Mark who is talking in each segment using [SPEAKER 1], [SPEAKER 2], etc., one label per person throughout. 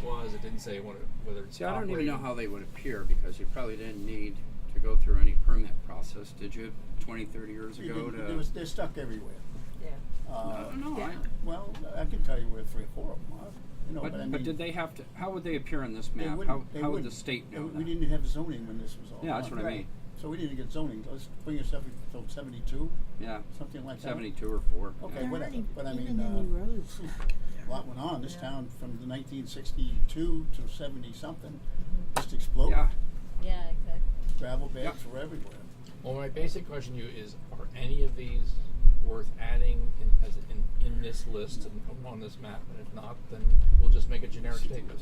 [SPEAKER 1] because it didn't say what it- whether it's
[SPEAKER 2] See, I don't even know
[SPEAKER 1] operating.
[SPEAKER 2] how they would appear because you probably didn't need to go through any permit process, did you, 20, 30 years
[SPEAKER 3] You
[SPEAKER 2] ago
[SPEAKER 3] didn't-
[SPEAKER 2] to? Mm-hmm.
[SPEAKER 3] there was- they're stuck everywhere.
[SPEAKER 4] Yeah.
[SPEAKER 2] I
[SPEAKER 3] Uh,
[SPEAKER 2] don't know, I-
[SPEAKER 3] well, I can tell you where three or four of them are. You know, but,
[SPEAKER 2] But,
[SPEAKER 3] I
[SPEAKER 2] but
[SPEAKER 3] mean,
[SPEAKER 2] did they have to, how would they appear on this
[SPEAKER 3] they
[SPEAKER 2] map?
[SPEAKER 3] wouldn't-
[SPEAKER 2] How,
[SPEAKER 3] they
[SPEAKER 2] how would the
[SPEAKER 3] wouldn't.
[SPEAKER 2] state
[SPEAKER 3] They
[SPEAKER 2] know
[SPEAKER 3] w- We
[SPEAKER 2] that?
[SPEAKER 3] didn't have zoning when this was all.
[SPEAKER 2] Yeah, that's
[SPEAKER 3] done.
[SPEAKER 2] what I
[SPEAKER 4] Right.
[SPEAKER 2] mean,
[SPEAKER 3] So we didn't get zoning. Let's bring us up until seventy-two,
[SPEAKER 2] yeah,
[SPEAKER 3] something like that.
[SPEAKER 2] seventy-two or four. yeah.
[SPEAKER 3] Okay,
[SPEAKER 4] There
[SPEAKER 3] whatever,
[SPEAKER 4] aren't e-
[SPEAKER 3] but I
[SPEAKER 4] even
[SPEAKER 3] mean,
[SPEAKER 4] any
[SPEAKER 3] uh,
[SPEAKER 4] roads.
[SPEAKER 3] A lot went on. This
[SPEAKER 4] Yeah.
[SPEAKER 3] town from the nineteen sixty-two to seventy-something just exploded.
[SPEAKER 2] Yeah.
[SPEAKER 5] Yeah, exactly.
[SPEAKER 3] Gravel
[SPEAKER 2] Yeah.
[SPEAKER 3] beds were everywhere.
[SPEAKER 1] Well, my basic question to you is: Are any of these worth adding in, as in, in this list and on this map? And if not, then we'll just make a generic statement.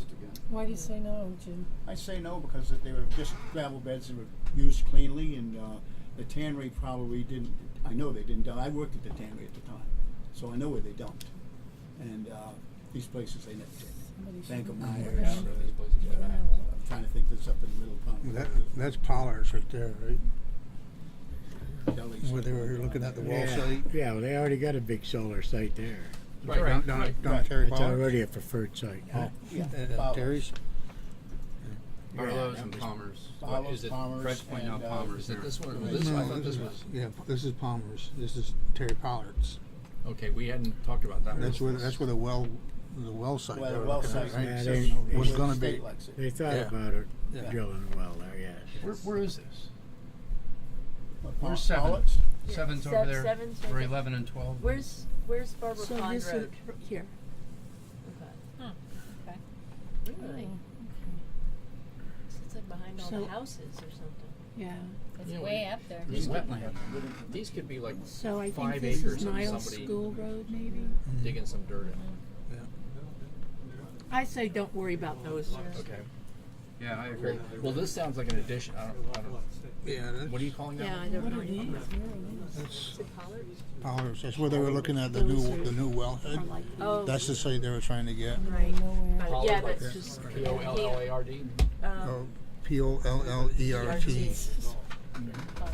[SPEAKER 6] Why do you say no, Jim?
[SPEAKER 3] I say no because they were just gravel beds that were used cleanly and uh, the tannery probably didn't, I know they didn't dump. I worked at the tannery at the time, so I know where they dumped. And uh, these places they never
[SPEAKER 6] Somebody
[SPEAKER 3] did. Bank of
[SPEAKER 6] should-
[SPEAKER 3] Meyer,
[SPEAKER 1] Yeah,
[SPEAKER 3] Abbott.
[SPEAKER 1] these places
[SPEAKER 3] uh,
[SPEAKER 1] went out.
[SPEAKER 3] I'm trying to think there's up in the middle of town.
[SPEAKER 7] That, that's Pollard's right there, right?
[SPEAKER 3] Deli's.
[SPEAKER 7] Where they were looking at the wall
[SPEAKER 8] Yeah.
[SPEAKER 7] site.
[SPEAKER 8] Yeah, well, they already got a big solar site there.
[SPEAKER 1] Right,
[SPEAKER 7] Down,
[SPEAKER 1] right,
[SPEAKER 7] down,
[SPEAKER 1] right.
[SPEAKER 7] down
[SPEAKER 3] Right.
[SPEAKER 7] Terry
[SPEAKER 8] It's
[SPEAKER 7] Pollard's.
[SPEAKER 8] already a preferred site.
[SPEAKER 3] Oh, yeah.
[SPEAKER 7] Uh,
[SPEAKER 3] Bowers.
[SPEAKER 7] Terry's.
[SPEAKER 2] Barlow's
[SPEAKER 1] that
[SPEAKER 2] and
[SPEAKER 1] was-
[SPEAKER 2] Palmer's.
[SPEAKER 1] What
[SPEAKER 3] Bowers,
[SPEAKER 1] is it?
[SPEAKER 3] Palmer's,
[SPEAKER 2] Fred's pointing
[SPEAKER 3] and,
[SPEAKER 2] out
[SPEAKER 3] uh,
[SPEAKER 2] Palmer's
[SPEAKER 1] Is it
[SPEAKER 2] there.
[SPEAKER 1] this one?
[SPEAKER 3] Right.
[SPEAKER 1] This, I
[SPEAKER 7] No,
[SPEAKER 1] thought this
[SPEAKER 7] is-
[SPEAKER 1] was.
[SPEAKER 7] Yeah, this is Palmer's. This is Terry Pollard's.
[SPEAKER 1] Okay, we hadn't talked about that.
[SPEAKER 7] That's
[SPEAKER 1] one.
[SPEAKER 7] where, that's where the well, the well site. they
[SPEAKER 3] Well,
[SPEAKER 7] were
[SPEAKER 3] the well
[SPEAKER 7] looking at,
[SPEAKER 3] site
[SPEAKER 7] right?
[SPEAKER 8] Yeah,
[SPEAKER 3] says
[SPEAKER 8] they-
[SPEAKER 3] no,
[SPEAKER 7] was
[SPEAKER 3] the
[SPEAKER 7] gonna
[SPEAKER 3] state
[SPEAKER 7] be-
[SPEAKER 3] likes it.
[SPEAKER 8] They thought
[SPEAKER 7] Yeah.
[SPEAKER 8] about it,
[SPEAKER 7] Yeah.
[SPEAKER 8] drilling a well there, yeah.
[SPEAKER 9] Where, where is this?
[SPEAKER 3] Well, Paul-
[SPEAKER 9] Where's seven?
[SPEAKER 3] Pollard's?
[SPEAKER 4] Yeah.
[SPEAKER 9] Seven's
[SPEAKER 4] Se-
[SPEAKER 9] over there.
[SPEAKER 4] seven's
[SPEAKER 9] Or
[SPEAKER 4] right there.
[SPEAKER 9] eleven and twelve.
[SPEAKER 4] Where's Where's Barbara
[SPEAKER 6] So
[SPEAKER 4] Pond
[SPEAKER 6] this is
[SPEAKER 4] Road?
[SPEAKER 6] r- here.
[SPEAKER 5] Really?
[SPEAKER 4] It's like behind all
[SPEAKER 6] So-
[SPEAKER 4] the houses or something.
[SPEAKER 6] Yeah.
[SPEAKER 5] It's
[SPEAKER 1] Yeah, we-
[SPEAKER 5] way up there.
[SPEAKER 1] These could,
[SPEAKER 9] wetland.
[SPEAKER 1] these could be like
[SPEAKER 6] So I
[SPEAKER 1] five
[SPEAKER 6] think this
[SPEAKER 1] acres
[SPEAKER 6] is
[SPEAKER 1] of
[SPEAKER 6] Niles
[SPEAKER 1] somebody
[SPEAKER 6] School Road, maybe.
[SPEAKER 7] Mm.
[SPEAKER 1] digging some dirt in.
[SPEAKER 6] I say don't worry about those.
[SPEAKER 1] Okay.
[SPEAKER 2] Yeah, I agree.
[SPEAKER 1] Well, well, this sounds like an addition. I don't, I don't,
[SPEAKER 7] Yeah,
[SPEAKER 1] what
[SPEAKER 7] that's
[SPEAKER 1] are you calling that?
[SPEAKER 6] Yeah, I
[SPEAKER 1] one?
[SPEAKER 6] don't know.
[SPEAKER 7] that's
[SPEAKER 4] Pollard?
[SPEAKER 7] Pollard's. That's where they were looking at the new, the new
[SPEAKER 6] Or
[SPEAKER 7] wellhead.
[SPEAKER 6] like
[SPEAKER 4] Oh,
[SPEAKER 7] That's the site they were trying to get.
[SPEAKER 4] right. But
[SPEAKER 1] Pollard,
[SPEAKER 4] yeah,
[SPEAKER 1] like
[SPEAKER 4] that's
[SPEAKER 7] that.
[SPEAKER 4] just
[SPEAKER 1] P O L L A R D.
[SPEAKER 4] um,
[SPEAKER 7] Oh, P O L L E R T.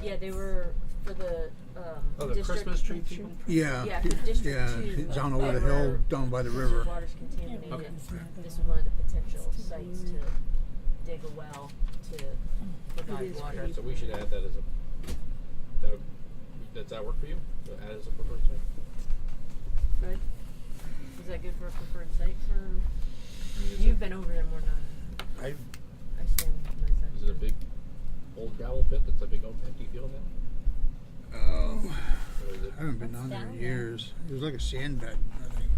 [SPEAKER 4] yeah, they were for the um,
[SPEAKER 1] Oh, the
[SPEAKER 4] district
[SPEAKER 1] Christmas tree people.
[SPEAKER 7] Yeah.
[SPEAKER 4] Yeah, for District
[SPEAKER 7] Yeah,
[SPEAKER 4] Two,
[SPEAKER 7] it's down over the
[SPEAKER 4] they
[SPEAKER 7] hill,
[SPEAKER 4] were-
[SPEAKER 7] down by the
[SPEAKER 4] since the
[SPEAKER 7] river.
[SPEAKER 4] Water's contaminated.
[SPEAKER 1] Okay.
[SPEAKER 4] This was one of the potential sites to dig a well to
[SPEAKER 6] It
[SPEAKER 4] provide
[SPEAKER 6] is
[SPEAKER 4] water.
[SPEAKER 6] pretty
[SPEAKER 1] So we should add that as a, that, would- does that work for you? To Add as a preferred site?
[SPEAKER 4] Fred, is that good for a preferred site for?
[SPEAKER 1] I mean, is
[SPEAKER 4] You've
[SPEAKER 1] it-
[SPEAKER 4] been over there more than I
[SPEAKER 7] I,
[SPEAKER 4] I stand with my side.
[SPEAKER 1] Is it a big old gravel pit that's a big old empty field now?
[SPEAKER 7] oh,
[SPEAKER 1] Or is it,
[SPEAKER 7] I haven't been down there in years. It was like a sand bed, I think.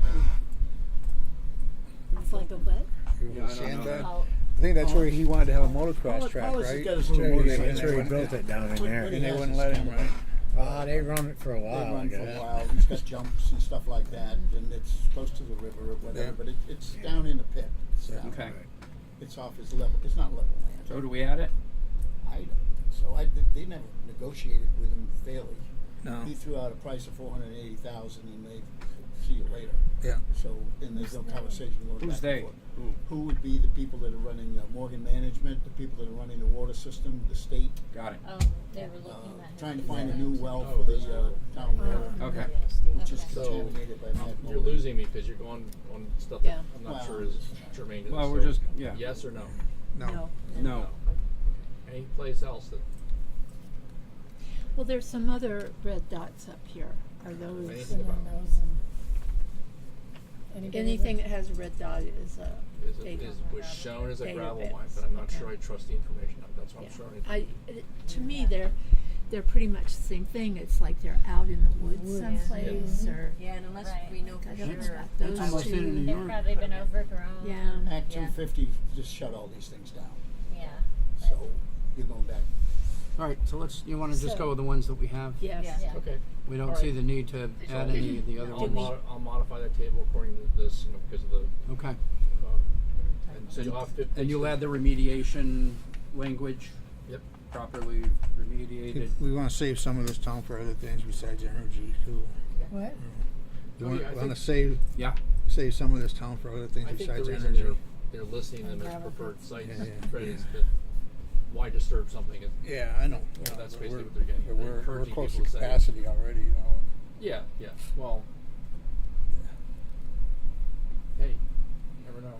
[SPEAKER 5] It's like a what?
[SPEAKER 7] It was
[SPEAKER 2] Yeah, I
[SPEAKER 7] a
[SPEAKER 2] don't
[SPEAKER 7] sand
[SPEAKER 2] know
[SPEAKER 7] bed.
[SPEAKER 2] that.
[SPEAKER 5] Oh,
[SPEAKER 7] I think that's where he wanted to have a motocross
[SPEAKER 3] Paul-
[SPEAKER 7] track,
[SPEAKER 3] Paulus has
[SPEAKER 7] right?
[SPEAKER 3] got his little
[SPEAKER 7] And they-
[SPEAKER 3] motorcycle.
[SPEAKER 7] and
[SPEAKER 8] That's
[SPEAKER 7] they
[SPEAKER 8] where he
[SPEAKER 7] wouldn't-
[SPEAKER 8] built it down in
[SPEAKER 3] What- what do
[SPEAKER 8] there.
[SPEAKER 3] you-
[SPEAKER 7] And they wouldn't let him, right?
[SPEAKER 8] Ah, they run it for a
[SPEAKER 3] They
[SPEAKER 8] while, I
[SPEAKER 3] run for a
[SPEAKER 8] guess.
[SPEAKER 3] while. He's got jumps and stuff like that, and it's close to the river or whatever.
[SPEAKER 7] Yeah.
[SPEAKER 3] But it, it's down in the pit. It's, down.
[SPEAKER 2] Okay,
[SPEAKER 3] it's off his level. It's not level land.
[SPEAKER 2] so do we add it?
[SPEAKER 3] I, so I they never negotiated with him fairly.
[SPEAKER 7] No,
[SPEAKER 3] He threw out a price of four hundred eighty thousand, and they see you later.
[SPEAKER 7] yeah.
[SPEAKER 3] So and there's no conversation going
[SPEAKER 2] Who's
[SPEAKER 3] back
[SPEAKER 2] they?
[SPEAKER 3] and forth.
[SPEAKER 2] Who?
[SPEAKER 3] Who would be the people that are running uh, Morgan Management, the people that are running the water system, the state,
[SPEAKER 2] Got it.
[SPEAKER 5] oh, they were
[SPEAKER 3] uh,
[SPEAKER 5] looking at
[SPEAKER 3] trying
[SPEAKER 5] having
[SPEAKER 3] to find a
[SPEAKER 5] that.
[SPEAKER 3] new well
[SPEAKER 1] Oh,
[SPEAKER 3] for the
[SPEAKER 1] there's a
[SPEAKER 3] uh, town
[SPEAKER 6] Um,
[SPEAKER 3] water,
[SPEAKER 2] Okay.
[SPEAKER 3] which is
[SPEAKER 5] Okay.
[SPEAKER 1] So, um,
[SPEAKER 3] contaminated by Matt
[SPEAKER 1] you're
[SPEAKER 3] Mullen.
[SPEAKER 1] losing me because you're going on stuff that
[SPEAKER 6] Yeah.
[SPEAKER 1] I'm not
[SPEAKER 3] Well,
[SPEAKER 1] sure is germane to the
[SPEAKER 2] Well, we're
[SPEAKER 1] story.
[SPEAKER 2] just- yeah.
[SPEAKER 1] Yes or no?
[SPEAKER 6] No.
[SPEAKER 7] No.
[SPEAKER 2] No.
[SPEAKER 1] Any place else that
[SPEAKER 6] Well, there's some other red dots up here. Are those,
[SPEAKER 1] Anything about
[SPEAKER 6] anything that has a red dot is a
[SPEAKER 1] is,
[SPEAKER 6] data.
[SPEAKER 1] is was shown as a
[SPEAKER 6] Data
[SPEAKER 1] gravel
[SPEAKER 6] bits.
[SPEAKER 1] mine, but I'm not
[SPEAKER 6] Okay.
[SPEAKER 1] sure I trust the information. That's what
[SPEAKER 6] Yeah.
[SPEAKER 1] I'm sure.
[SPEAKER 6] I, it- to me, they're, they're pretty much the same thing. It's like they're out in the woods
[SPEAKER 4] Yeah.
[SPEAKER 6] someplace or.
[SPEAKER 4] Yeah, and unless
[SPEAKER 5] Right.
[SPEAKER 4] we know for
[SPEAKER 6] I don't know
[SPEAKER 4] sure.
[SPEAKER 6] about
[SPEAKER 3] That's
[SPEAKER 6] those
[SPEAKER 3] almost in
[SPEAKER 6] two.
[SPEAKER 3] New
[SPEAKER 5] They've
[SPEAKER 3] York.
[SPEAKER 5] probably been overgrown.
[SPEAKER 6] Yeah.
[SPEAKER 3] Act
[SPEAKER 5] Yeah.
[SPEAKER 3] two fifty just shut all these things down.
[SPEAKER 5] Yeah.
[SPEAKER 3] So you're going back.
[SPEAKER 2] All right, so let's, you wanna just
[SPEAKER 6] So-
[SPEAKER 2] go with the ones that we have?
[SPEAKER 6] Yes.
[SPEAKER 5] Yeah.
[SPEAKER 1] Okay.
[SPEAKER 2] We
[SPEAKER 1] All
[SPEAKER 2] don't
[SPEAKER 1] right.
[SPEAKER 2] see the need to
[SPEAKER 1] So-
[SPEAKER 2] add any of the other
[SPEAKER 1] I'll,
[SPEAKER 2] ones.
[SPEAKER 1] mod- I'll modify that table according to this, you know, because of the.
[SPEAKER 2] Okay,
[SPEAKER 1] Uh, and so
[SPEAKER 2] And-
[SPEAKER 1] you'll have to
[SPEAKER 2] and you'll add the remediation language
[SPEAKER 1] Yep.
[SPEAKER 2] properly remediated.
[SPEAKER 7] We wanna save some of this town for other things besides energy too.
[SPEAKER 6] What?
[SPEAKER 7] We
[SPEAKER 1] Oh, yeah, I
[SPEAKER 7] wanna- wanna
[SPEAKER 1] think-
[SPEAKER 7] save,
[SPEAKER 2] Yeah,
[SPEAKER 7] save some of this town for other things
[SPEAKER 1] I think the
[SPEAKER 7] besides
[SPEAKER 1] reason they're,
[SPEAKER 7] energy.
[SPEAKER 1] they're listing them as preferred sites,
[SPEAKER 7] Yeah, yeah,
[SPEAKER 1] Fred, is
[SPEAKER 7] yeah.
[SPEAKER 1] that why disturb something? It-
[SPEAKER 7] Yeah, I know.
[SPEAKER 1] Yeah, that's
[SPEAKER 7] but
[SPEAKER 1] basically
[SPEAKER 7] we're-
[SPEAKER 1] what they're getting.
[SPEAKER 7] but
[SPEAKER 1] They're
[SPEAKER 7] We're, we're
[SPEAKER 1] encouraging
[SPEAKER 7] close to
[SPEAKER 1] people to say-
[SPEAKER 7] capacity already, you know.
[SPEAKER 1] Yeah, yeah, well. Hey, never know.